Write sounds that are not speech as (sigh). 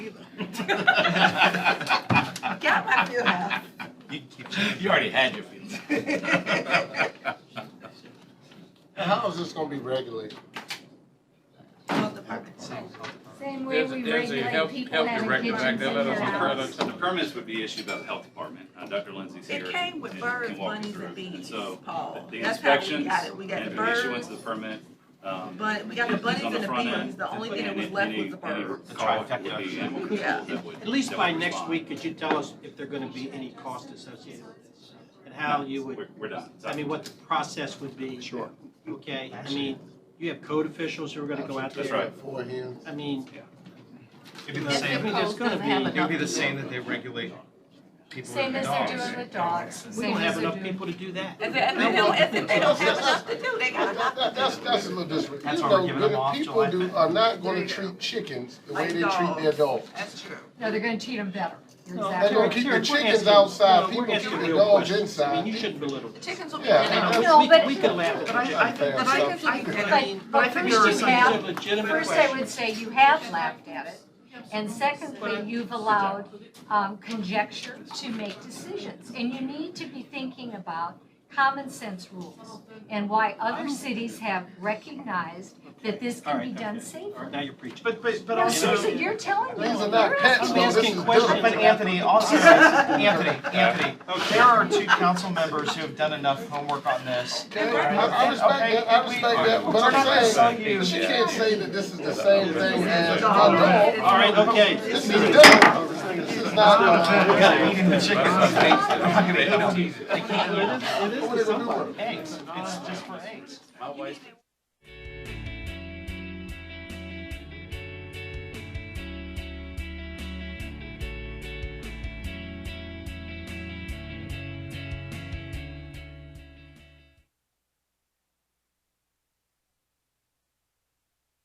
Got my few half. (laughs) You already had your feelings. How is this gonna be regulated? Health department. Same way There's a, we there's a regulate health, people health having director back kitchens there, in let their us, let house. us. The permits would be issued by the health department. Uh, Dr. Lindsay's here. It came with and birds, can walk you bunnies, through. and bees, so Paul. The That's how we inspections got it. We got the and the birds, issuance of the permit. um, but we got the is on bunnies and the front end, bees. The only thing that and was left any- was the any birds. call The would be trifecta. animal control Yeah. that would- At least that by would next respond. week, could you tell us if there gonna be any cost associated with this? And how you would, We're, we're done. I mean, what the process would be? Sure. Okay, I mean, you have code officials who are gonna go out there. That's right. Beforehand. I mean, It'd be the I If same, the mean, there's post gonna doesn't have be- it would be the enough same people. that they regulate people Same with as dogs. they're doing with dogs. we Same don't as have they're enough doing- people to do that. And then, and they don't, if they don't have enough to do, they got That- enough that- to That's, do. that's a disrespect. That's You why we're know, giving them good off people July do, fifth. are not gonna There you go. treat chickens the way Like they treat their dogs. dogs. That's true. No, they're gonna treat them better. You're No, They're exactly gonna right. keep Terry, the we're chickens asking- outside, no, we're people keep asking the real dogs questions. I mean, inside. you shouldn't belittle The this. chickens will be Yeah. dead. No, No, we- but- We could laugh at But I- the I think- judge. but I think- I- But but- I mean, but I think first there are you some have- legitimate First, I would questions. say you have laughed at it. And secondly, you've allowed um, conjecture to make decisions. And you need to be thinking about common sense rules and why other cities have recognized that this All can right, be done okay. safely. All right, Now you're preaching. But, but, but No, also. seriously, you're telling me. These are You're not pets, asking though. I'm This asking is questions, dumb. but (laughs) Anthony, also, Anthony, Anthony, there are two council members who have done enough homework on this. Okay, I, I respect Okay, that, I we- respect that, but We're not gonna I'm sue saying, you. but she can't say that this is the same thing as a Dog. dog. All right, okay. This is dumb. This is We not. gotta eat in the chicken. (laughs) It is, it is What are for they gonna do somebody. with eggs, it's just for eggs. You need to